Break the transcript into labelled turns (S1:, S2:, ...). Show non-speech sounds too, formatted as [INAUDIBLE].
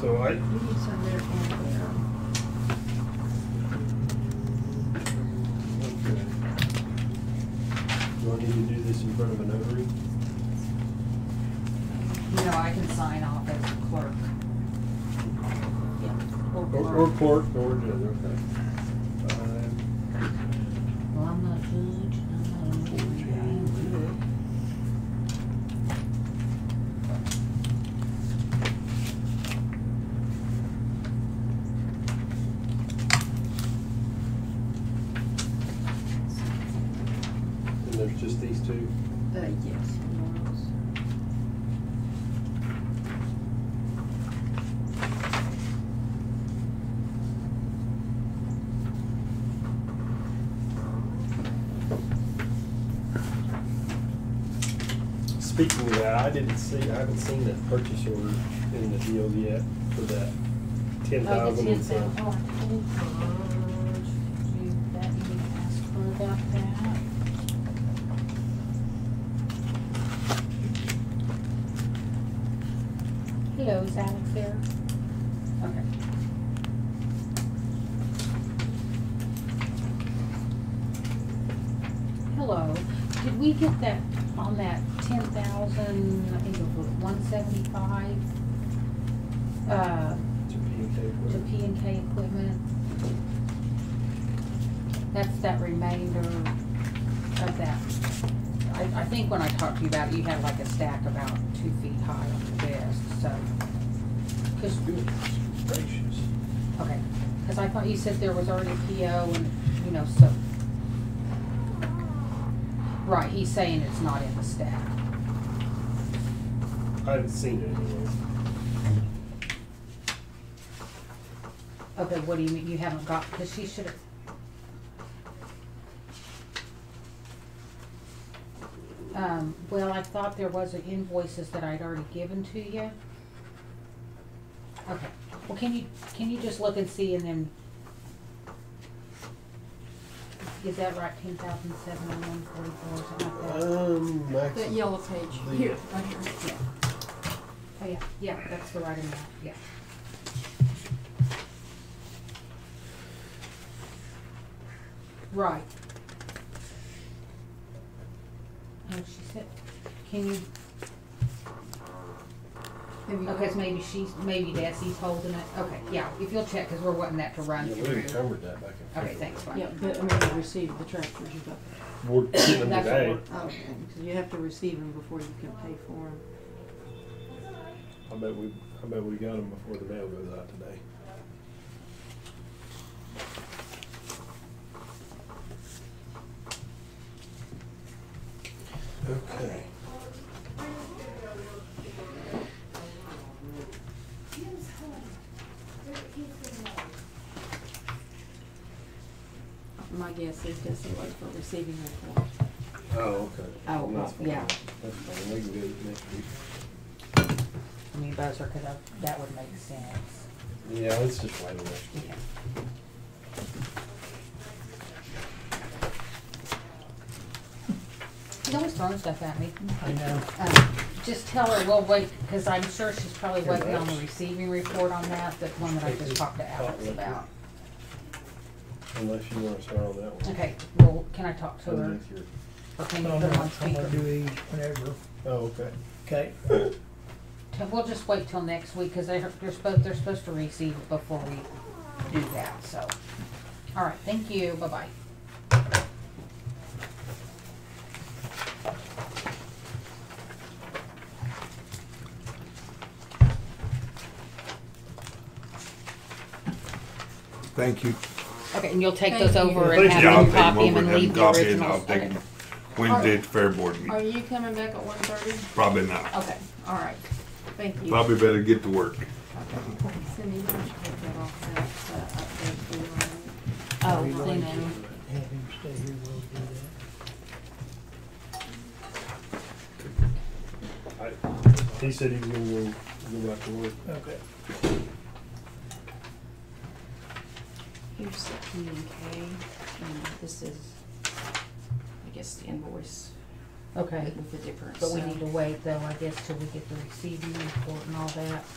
S1: So I,
S2: He's under Amazon.
S1: okay. Do I need to do this in front of a notary?
S3: No, I can sign off as the clerk. Yeah, or
S1: Or or
S3: clerk.
S1: clerk, or judge, okay. Five,
S3: Well, I'm not judge, I'm not a lawyer, I'm
S1: fourteen. And there's just these two?
S2: Uh, yes, Laurel's.
S1: Speaking of that, I didn't see, I haven't seen that purchase order in the deal yet for that ten
S3: Oh, the
S1: thousand.
S3: ten thousand, oh, I told her, you, that you asked
S4: Oh,
S3: her about that.
S4: Hello, is Alex there?
S3: Okay.
S4: Hello, did we get that, on that ten thousand, I think it was one seventy-five? Uh,
S1: To P and K
S4: to
S1: equipment.
S4: P and K equipment? That's that remainder of that. I, I think when I talked to you about it, you had like a stack about two feet high on the desk, so. Cause
S1: Goodness Gracious.
S4: Okay, because I thought you said there was already a PO and, you know, so. Right, he's saying it's not in the stack.
S1: I haven't seen it anywhere.
S4: Okay, what do you mean, you haven't got, because she should have, um, well, I thought there was invoices that I'd already given to you. Okay, well, can you, can you just look and see and then? Is that right, ten thousand seven oh one forty-four, something like that?
S1: Um, Max.
S2: That yellow page, here, right here.
S4: Yeah. Oh, yeah, yeah, that's the right amount, yeah. Right. Oh, she said, can you,
S2: Have you-
S4: okay, so maybe she's, maybe Desi's holding it, Uh-huh. okay, yeah, if you'll check, cause we're wanting that to run
S1: Yeah, we
S4: through.
S1: encumbered that back in.
S4: Okay, thanks, Bonnie.
S2: Yeah, but I mean, you received the tractors, you got
S4: [COUGHS]
S1: We're getting them
S4: That's what
S1: today.
S4: we're-
S2: that. Okay, because you have to receive them before you can pay for them.
S1: I bet we, I bet we got them before the mail goes out today. Okay.
S2: My guess is Desi was for receiving them for.
S1: Oh, okay.
S4: Oh,
S1: That's fine.
S4: yeah.
S1: That's fine, we can do it next week.
S4: I mean, buzzer, cause I, that would make sense.
S1: Yeah, let's just wait a minute.
S4: Yeah. She's always throwing stuff at me.
S1: I know.
S4: Um, Just tell her we'll wait, because I'm sure she's probably
S1: Here,
S4: waiting on the
S1: Rex.
S4: receiving report on that, that one that I
S1: Take
S4: just
S1: this
S4: talked to Alex
S1: cotton.
S4: about.
S1: Unless you wanna start on that one.
S4: Okay, well, can I talk to
S1: And
S4: her?
S1: if you're-
S4: Or can you
S5: No,
S4: put
S5: no,
S4: her on
S5: I'm gonna
S4: speaker?
S5: do these whenever,
S1: Oh, okay.
S5: okay?
S4: T- We'll just wait till next week, because they're, they're supposed, they're supposed to receive it before we do that, so. All right, thank you, bye-bye.
S6: Thank you.
S4: Okay, and you'll take those
S2: Thank you.
S4: over and have
S6: Yeah, I'll
S4: them
S6: take them
S4: copy them
S6: over
S4: and
S6: and
S4: leave
S6: have
S4: the
S6: copies and I'll
S4: originals?
S6: take
S4: Okay.
S6: them Wednesday at the fair board
S2: Are
S6: meeting.
S2: you coming back at one thirty?
S6: Probably not.
S2: Okay, all right, thank you.
S6: Probably better get to work.
S2: Cindy, why don't you take that off that, uh, update for you?
S4: Oh, they know.
S5: Have him stay here, we'll do that.
S1: I, he said he was gonna go, go back to work.
S5: Okay.
S2: Here's the P and K, and this is, I guess, the invoice
S4: Okay.
S2: with the difference.
S4: But we
S2: so-
S4: need to wait though, I guess, till we get the receiving report and all that.